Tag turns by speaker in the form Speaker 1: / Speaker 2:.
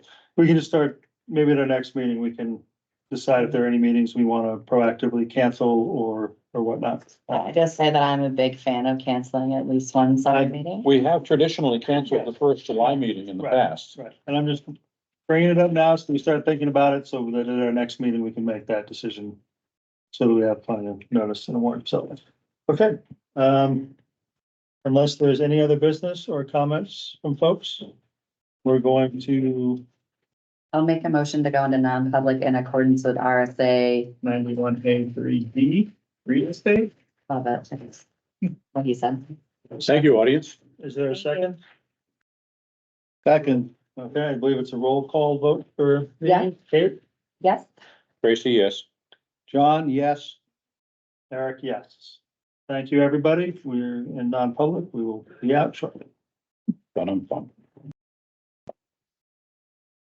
Speaker 1: we can just start, maybe at our next meeting, we can decide if there are any meetings we wanna proactively cancel or, or whatnot.
Speaker 2: Uh, I just say that I'm a big fan of canceling at least one
Speaker 1: I-
Speaker 2: summer meeting.
Speaker 3: We have traditionally canceled the first July meeting in the
Speaker 1: Right.
Speaker 3: past.
Speaker 1: Right, and I'm just bringing it up now, so we start thinking about it, so that at our next meeting, we can make that decision. So that we have plenty of notice and warrant, so, okay, um. Unless there's any other business or comments from folks, we're going to
Speaker 2: I'll make a motion to go into non-public in accordance with RSA,
Speaker 4: ninety-one A three D, real estate.
Speaker 2: love it. That's oh What he said.
Speaker 3: Thank you, audience.
Speaker 1: Is there a
Speaker 2: Thank you.
Speaker 1: second? Second. Okay, I believe it's a roll call vote for.
Speaker 2: Yeah.
Speaker 1: Kate?
Speaker 2: Yes?
Speaker 3: Tracy, yes.
Speaker 1: John, yes. Eric, yes. Thank you, everybody. We're in non-public. We will be out shortly.
Speaker 3: Done, I'm done.